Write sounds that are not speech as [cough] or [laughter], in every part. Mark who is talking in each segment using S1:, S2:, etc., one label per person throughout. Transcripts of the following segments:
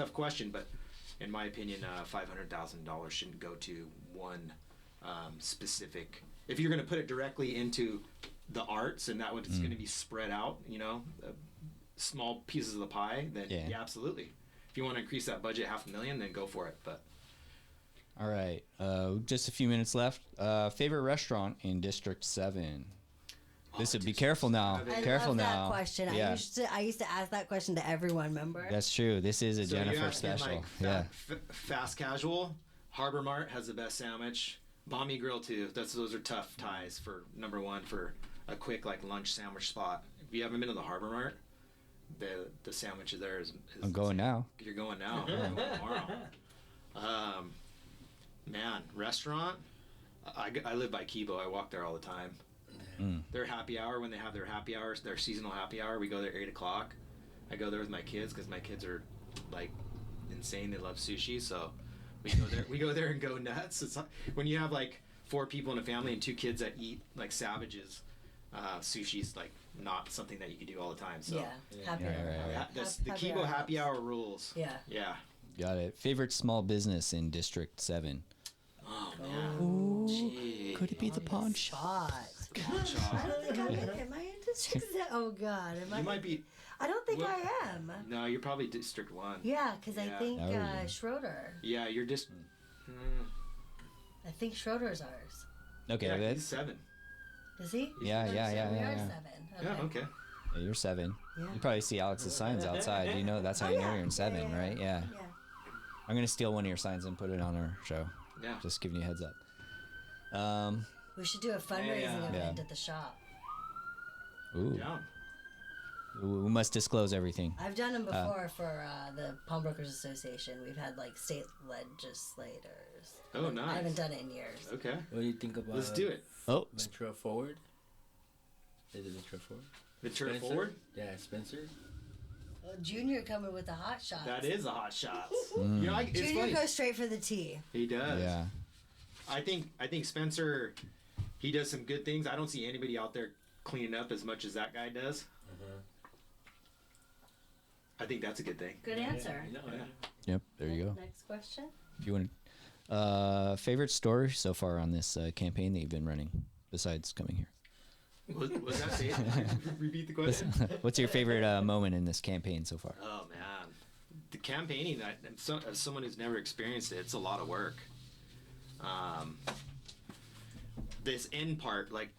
S1: tough question, but in my opinion, uh, five hundred thousand dollars shouldn't go to one um, specific. If you're going to put it directly into the arts, and that would,
S2: Mm.
S1: it's going to be spread out, you know, uh, small pieces of the pie, then
S2: Yeah.
S1: yeah. absolutely. If you want to increase that budget half a million, then go for it. But
S2: All right, uh, just a few minutes left. Uh, favorite restaurant in District Seven. This would be
S1: Oh, District
S2: careful now.
S1: seven.
S2: Be
S1: I
S3: I
S2: careful
S3: love
S2: now.
S3: that question. I
S2: Yeah,
S3: used to I used to ask that question to everyone. Remember?
S2: that's true. This is a
S1: So you're
S2: Jennifer
S1: asking,
S2: special.
S1: like, fa-
S2: yeah.
S1: f- fast casual. Harbor Mart has the best sandwich. Bommy Grill too. That's those are tough ties for number one for a quick like lunch sandwich spot. If you haven't been to the Harbor Mart, the the sandwich there is. is
S2: I'm going now.
S1: You're going now. You're going tomorrow. Um, man, restaurant. I, I live by Kibo. I walk there all the time. Their happy hour when they have their happy hours, their seasonal happy hour. We go there eight o'clock. I go there with my kids because my kids are like insane. They love sushi, so we go there. we go there and go nuts. It's not, when you have like four people in a family and two kids that eat like savages. Uh, sushi's like not something that you can do all the time. So
S3: yeah. Happy
S2: Yeah,
S3: hour.
S2: right, right.
S1: Ha- that's
S3: Hap-
S1: the
S3: happy
S1: Kibo
S3: hour
S1: happy
S3: helps.
S1: hour rules.
S3: Yeah.
S1: Yeah.
S2: Got it. Favorite small business in District Seven.
S1: Oh man.
S2: Could it be the pawn shop?
S3: Shot. I
S1: Shaw.
S2: [laughs]
S3: don't think I'm in, am I in district? Se- [laughs] Oh God, am I?
S1: You might be.
S3: I don't think
S1: Well-
S3: I am.
S1: No, you're probably District One.
S3: Yeah, because I
S1: Yeah.
S3: think
S2: Oh.
S3: uh, Schroeder.
S1: Yeah, you're just.
S4: Hmm.
S1: Mm,
S3: I think Schroeder's ours.
S2: Okay,
S1: yeah, he's
S2: that's
S1: seven.
S3: Is he?
S2: Yeah, yeah, yeah,
S3: So we
S2: yeah,
S3: are
S2: yeah.
S3: seven.
S1: Yeah. Okay.
S2: yeah, you're seven.
S3: Yeah.
S2: You probably see Alex's signs outside. You know that's how
S3: Oh,
S2: you
S3: yeah.
S2: know you're in seven,
S3: Yeah, yeah,
S2: right? Yeah.
S3: Yeah.
S2: I'm gonna steal one of your signs and put it on our show.
S1: Yeah.
S2: Just giving you a heads up. Um.
S3: We should do a fundraising
S1: Yeah.
S3: event
S2: Yeah.
S3: at the shop.
S2: Ooh.
S1: down.
S2: We we must disclose everything.
S3: I've done them before for uh, the Pawnbrokers Association. We've had like state legislators.
S1: Oh,
S3: I haven't
S1: nice.
S3: done it in years.
S1: Okay.
S4: What do you think about?
S1: Let's do it.
S2: Oh,
S4: Ventura Forward. Is it Ventura Forward?
S1: Ventura
S4: Spencer?
S1: forward.
S4: Yeah, Spencer.
S3: Well, Junior coming with the hot shots.
S1: That is a hot shot.
S4: Hmm.
S1: You know, I, it's
S3: Junior
S1: funny.
S3: goes straight for the T.
S1: He does.
S2: yeah.
S1: I think I think Spencer, he does some good things. I don't see anybody out there cleaning up as much as that guy does.
S4: Mm-hmm.
S1: I think that's a good thing.
S3: Good answer.
S4: No,
S1: Yeah.
S2: Yep. There you go.
S3: Next question.
S2: If you want, uh, favorite story so far on this uh, campaign that you've been running, besides coming here.
S1: Was, was that
S2: [laughs]
S1: safe? Repeat the question.
S2: What's your favorite uh, moment in this campaign so far?
S1: Oh man, the campaigning. I, and so, as someone who's never experienced it, it's a lot of work. Um, this end part, like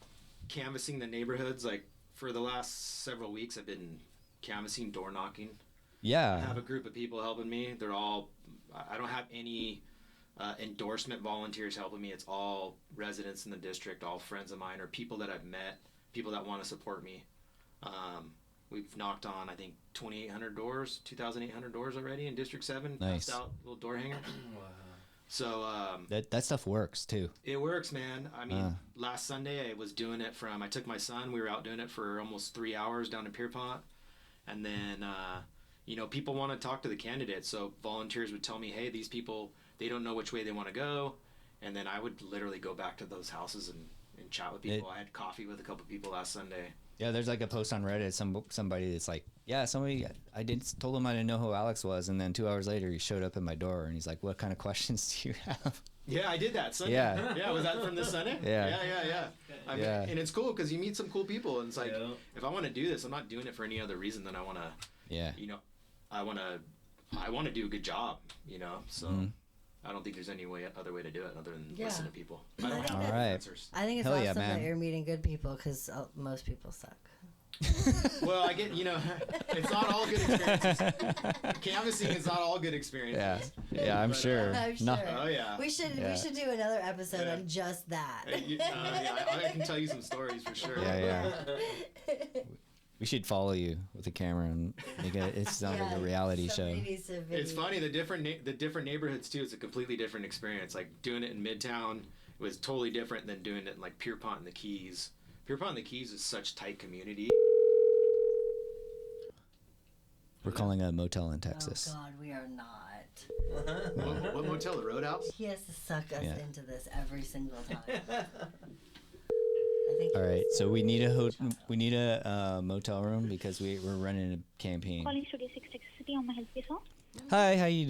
S1: canvassing the neighborhoods, like for the last several weeks, I've been canvassing, door knocking. I have
S2: Yeah.
S1: a group of people helping me. They're all. I I don't have any uh, endorsement volunteers helping me. It's all residents in the district, all friends of mine, or people that I've met, people that want to support me. Um, we've knocked on, I think, 2,800 doors, 2,800 doors already in District Seven.
S2: Nice.
S1: Passed out little door hangers. So um,
S2: That that stuff works too.
S1: it works, man. I mean,
S2: Uh.
S1: last Sunday I was doing it from. I took my son. We were out doing it for almost three hours down in Pierpont, and then uh, you know people want to talk to the candidates. So volunteers would tell me, "Hey, these people they don't know which way they want to go," and then I would literally go back to those houses and, and chat with people.
S2: It-
S1: I had coffee with a couple people last Sunday.
S2: Yeah, there's like a post on Reddit. Some somebody that's like, yeah, somebody I did told him I didn't know who Alex was, and then two hours later he showed up at my door and he's like, "What kind of [laughs] questions do you have?"
S1: Yeah, I did that Sunday.
S2: Yeah.
S1: [laughs] yeah. Was that from this Sunday?
S2: Yeah.
S1: yeah, yeah, yeah. I mean,
S2: Yeah.
S1: and it's cool because you meet some cool people, and it's like,
S4: Yeah.
S1: if I want to do this, I'm not doing it for any other reason than I want to.
S2: Yeah.
S1: you know, I want to, I want to do a good job, you know. So
S2: Mhm.
S1: I don't think there's any way, other way to do it other than
S3: Yeah.
S1: listen to people. I
S3: All
S1: don't have
S2: All
S1: the
S2: right.
S1: answers.
S3: I think it's
S2: Hell
S3: awesome
S2: yeah,
S3: that
S2: man.
S3: you're meeting good people because uh, most people suck.
S1: [laughs] [laughs] Well, I get, you know, [laughs] it's not all good
S3: [laughs]
S1: experiences. Canvassing is not all good experiences.
S2: [laughs] Yeah. Yeah, I'm sure.
S3: I'm sure.
S2: No-
S1: Oh yeah.
S3: We should
S2: Yeah.
S3: we should do another episode
S1: Yeah.
S3: on just that.
S1: Uh, you- uh, yeah, I, I can tell you some stories for sure.
S2: Yeah,
S3: [laughs]
S2: yeah. we should follow you with a camera and make it. It sounds like a reality show.
S3: somebody needs to
S1: It's
S3: video-
S1: funny the different na- the different neighborhoods too. It's a completely different experience. Like doing it in Midtown was totally different than doing it in like Pierpont and the Keys. Pierpont and the Keys is such tight community.
S2: We're calling a motel in
S3: Oh
S2: Texas.
S3: God, we are not.
S1: What, what motel? The Roadhouse.
S3: He has to suck us
S2: Yeah.
S3: into this every single time. I think.
S2: All right,
S3: it's-
S2: so we need a ho- we need a uh, motel room because we we're running a campaign.
S5: Calling Studio 666 City, how may I help you, sir?
S2: Hi, how you